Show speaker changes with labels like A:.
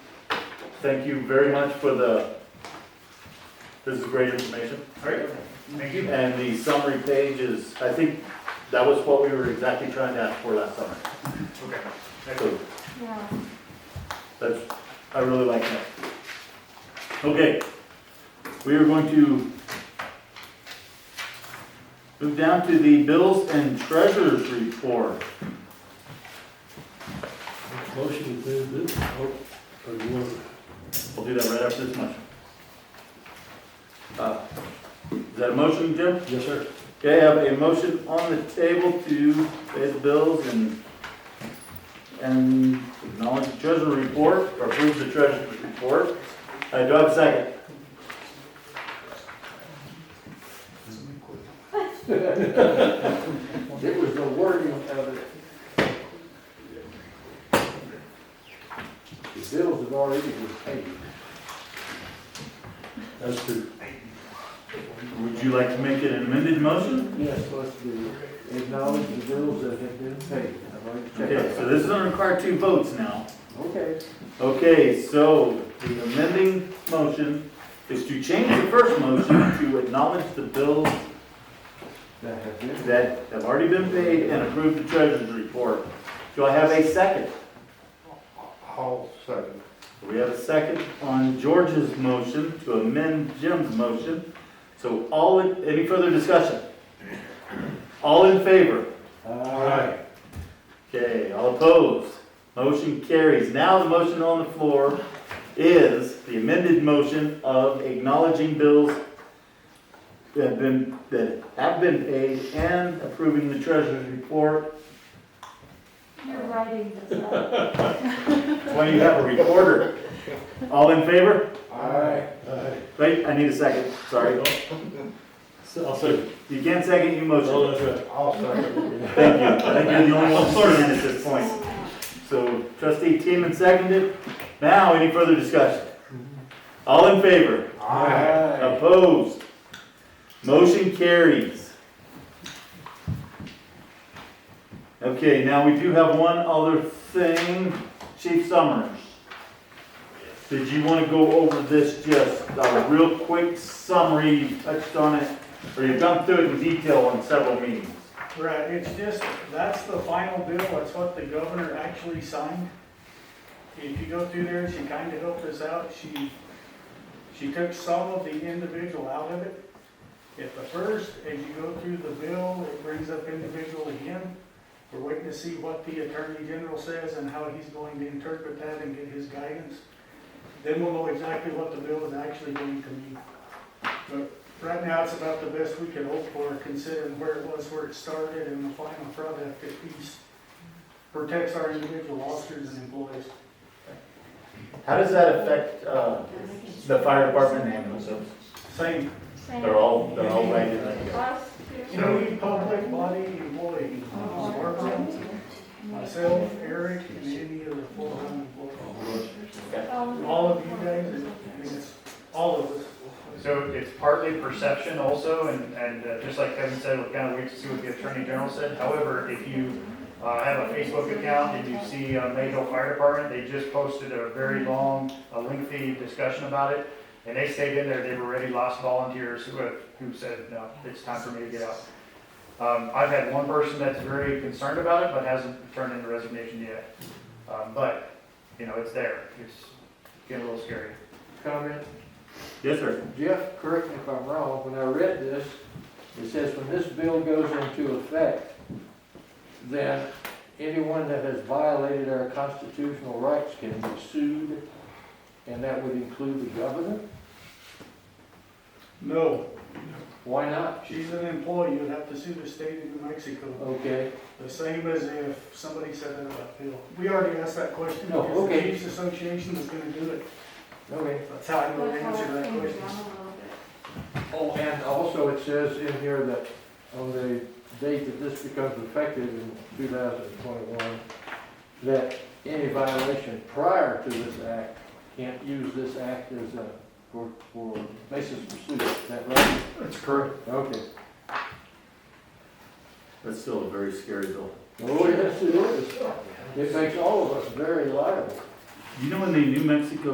A: Thank you very much for the, this is great information.
B: All right, thank you.
A: And the summary page is, I think that was what we were exactly trying to ask for last summer.
B: Okay. Thank you.
A: So that's, I really like that. Okay, we are going to move down to the bills and treasurers report.
C: Motion to approve, or, or you want,
A: We'll do that right after this motion. Uh, Is that a motion, Jim?
C: yes, sir.
A: Okay, I have a motion on the table to pay the bills and, and acknowledge the treasurer's report, or approve the treasurer's report. Uh, do I have a second?
D: It was the wording of it. The bills have already been paid.
C: That's true.
A: Would you like to make it an amended motion?
D: Yes, let's do it. Acknowledge the bills that have been paid. I'd like to check
A: Okay,
D: it.
A: so this is gonna require two votes now.
D: Okay.
A: Okay, so the amending motion is to change the first motion to acknowledge the bills
D: That have been.
A: that have already been paid and approve the treasurer's report. Do I have a second?
D: All second.
A: We have a second on George's motion to amend Jim's motion. So all, in- any further discussion? All in favor?
D: All right.
A: Okay, all opposed? Motion carries. Now the motion on the floor is the amended motion of acknowledging bills that have been, that have been paid and approving the treasurer's report.
E: You're writing this up.
A: That's why you have a recorder. All in favor?
D: All right.
C: Alright,
A: Wait, I need a second, sorry.
C: so I'll say,
A: You can't second your motion.
C: oh, that's right.
D: All second.
A: Thank you. I think you're the only one voting at this point. So trustee Teeman seconded. Now, any further discussion? All in favor?
D: All right.
A: Opposed? Motion carries. Okay, now we do have one other thing. Chief Summers. Did you want to go over this just a real quick summary? You touched on it, or you've gone through it in detail on several meetings.
B: Right, it's just, that's the final bill, that's what the governor actually signed. If you go through there, she kinda helped us out, she, she took some of the individual out of it. At the first, as you go through the bill, it brings up individual again. We're waiting to see what the attorney general says and how he's going to interpret that and get his guidance. Then we'll know exactly what the bill is actually going to mean. But Right now, it's about the best we can hope for, considering where it was, where it started, and the final product at least protects our individual officers and employees.
A: How does that affect, uh, the fire department and ambulance service?
B: Same,
E: Same.
A: They're all, they're all right in there.
E: Us two.
B: any public body employee, Barbara, myself, Eric, and any of the full-time employees. All of you guys, and I mean, it's all of us.
F: So it's partly perception also, and, and uh, just like Kevin said, we're kind of wait to see what the Attorney General said. However, if you uh, have a Facebook account and you see uh, Mayville Fire Department, they just posted a very long, a lengthy discussion about it. And they stayed in there, they've already lost volunteers who have, who said, no, it's time for me to get out. Um, I've had one person that's very concerned about it, but hasn't turned in the resignation yet. Um, But, you know, it's there, it's getting a little scary.
D: Comment.
A: Yes, sir.
D: Jeff, correct me if I'm wrong, when I read this, it says when this bill goes into effect, then anyone that has violated our constitutional rights can be sued, and that would include the governor?
B: No,
D: Why not?
B: she's an employee, you'd have to sue the state of New Mexico,
D: Okay,
B: the same as if somebody said that about Bill. We already asked that question,
D: No,
B: because the
D: okay.
B: Chiefs Association is gonna do it.
D: okay.
B: That's how I'm gonna
E: Let's all
B: answer that
E: change
B: question.
E: around a little bit.
D: Oh, and also it says in here that on the date that this becomes effective in 2021, that any violation prior to this act can't use this act as a, for, for basis for suit. Is that right?
F: That's correct.
D: Okay.
A: That's still a very scary bill.
D: Oh, yes, it is. It makes all of us very liable.
A: You know when the New Mexico